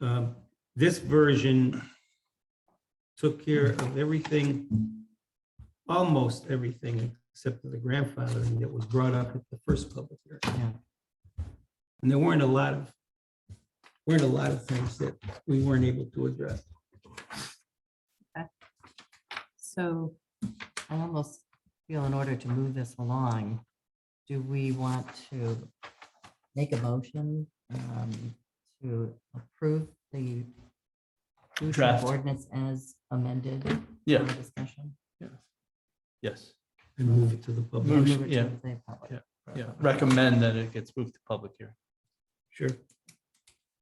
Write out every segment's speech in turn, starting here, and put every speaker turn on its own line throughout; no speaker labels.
um, this version took care of everything, almost everything, except for the grandfathering that was brought up at the first public
Yeah.
hearing. And there weren't a lot of, weren't a lot of things that we weren't able to address.
So I almost feel in order to move this along, do we want to make a motion um, to approve the pollution
Draft.
ordinance as amended? for
Yeah.
Discussion?
Yes,
And move it to the public.
And
Motion,
move it
yeah.
to the public.
yeah. Recommend that it gets moved to public hearing.
Sure.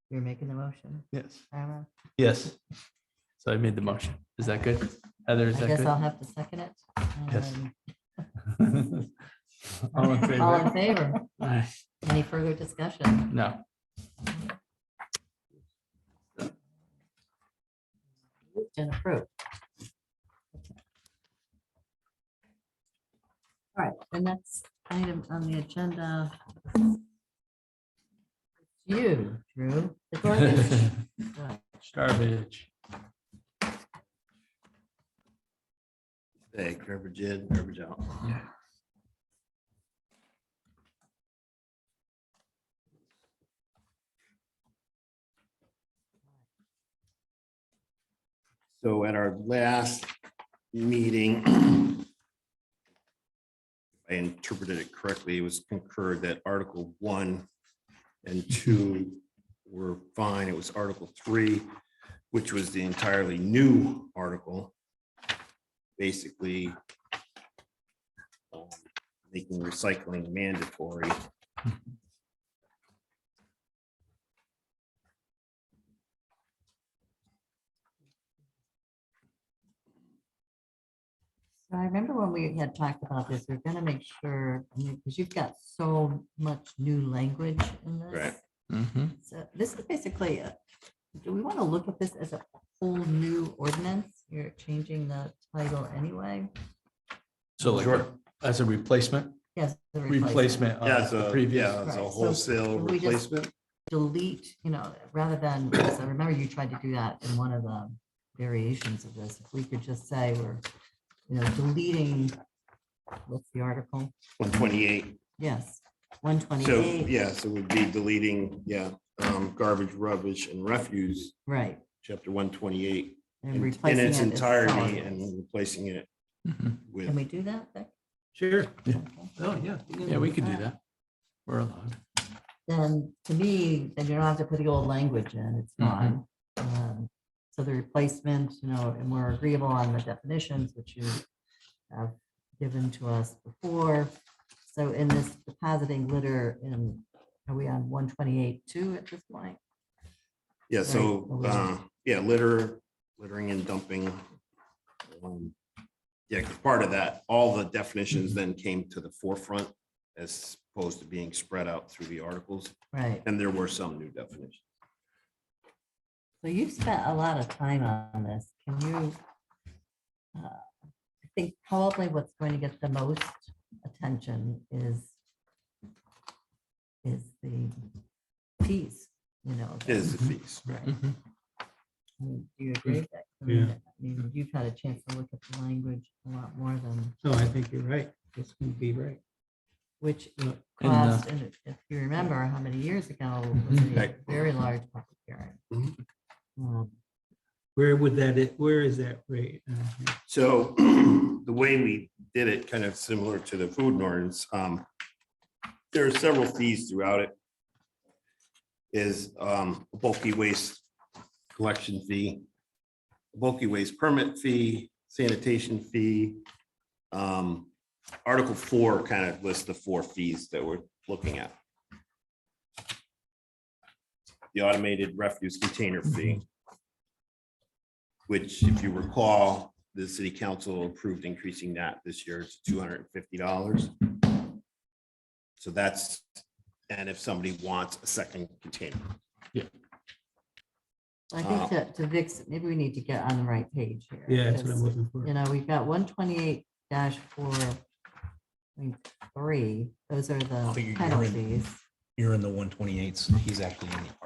You're making the motion,
Yes.
Tyra?
Yes. So I made the motion. Is that good? Heather, is
I guess I'll
that
have to second it.
Yes.
Um,
good? All in
All
favor?
in favor?
Aye.
Any further discussion?
No.
Moved And approved. All right, the next item on the agenda. is You, Drew. the garbage. Right.
Garbage.
Hey, garbage in, garbage out. So at our last meeting, I interpreted it correctly, it was concurred that Article one and two were fine. It was Article three, which was the entirely new article basically um, making recycling mandatory.
So I remember when we had talked about this, we're gonna make sure, because you've got so much new language in this.
Right.
Mhm.
So this is basically, a- do we want to look at this as a whole new ordinance? You're changing the title anyway?
So like,
Sure.
as a replacement,
Yes. the
replacement
Yeah,
of
it's
the
a,
Uh, previous.
yeah, it's
Right,
a
so
wholesale
can we just-
replacement.
Delete, you know, rather than, because I remember you tried to do that in one of the variations of this. If we could just say we're, you know, deleting, what's the article?
One twenty-eight.
Yes, one
So,
twenty-eight,
yeah, so we'd be deleting, yeah, um, garbage, rubbish and refuse,
right.
chapter one twenty-eight.
And
In
replacing
its
it as
entirety
solid
and
waste.
replacing it
Mhm.
Can
with,
we do that? Becky?
Sure.
Yeah.
Okay.
Oh, yeah.
Yeah, we could do that. We're allowed.
then to me, then you don't have to put the old language in, it's
Mhm.
fine. Um, So the replacement, you know, and we're agreeable on the definitions which you have given to us before. So in this depositing litter, in, are we on one twenty-eight two at this point?
yeah, so,
Right.
uh, yeah, litter, littering and dumping. Um, Yeah, 'cause part of that, all the definitions then came to the forefront as opposed to being spread out through the articles.
Right,
And there were some new definitions.
so you've spent a lot of time on this, can you? uh, I think probably what's going to get the most attention is is the fees, you know. that-
Is the fees,
Right.
Mhm.
I mean, Do you agree with that? I mean,
Yeah.
that- I mean, You've had a chance to look at the language a lot more than,
No, I think you're right. This would be right.
which
Yeah.
And, uh,
cost, and if you remember how many years ago, it was a
Right.
very large public hearing. Um,
Where would that, i- where is that rate? Uh,
So the way we did it, kind of similar to the food ordinance, um, there are several fees throughout it. Is um, bulky waste collection fee, bulky waste permit fee, sanitation fee. Um, Article four kind of lists the four fees that we're looking at. The automated refuse container fee. Which, if you recall, the city council approved increasing that this year to two hundred and fifty dollars. So that's, and if somebody wants a second container,
I think to, to Vic's, maybe we need to get on the right page here.
Uh, Yeah, that's what I'm
because,
looking for.
You know, we've got one twenty-eight four, three, those are
think
the
you're in-
penalties.
You're in the one twenty-eights. He's actually in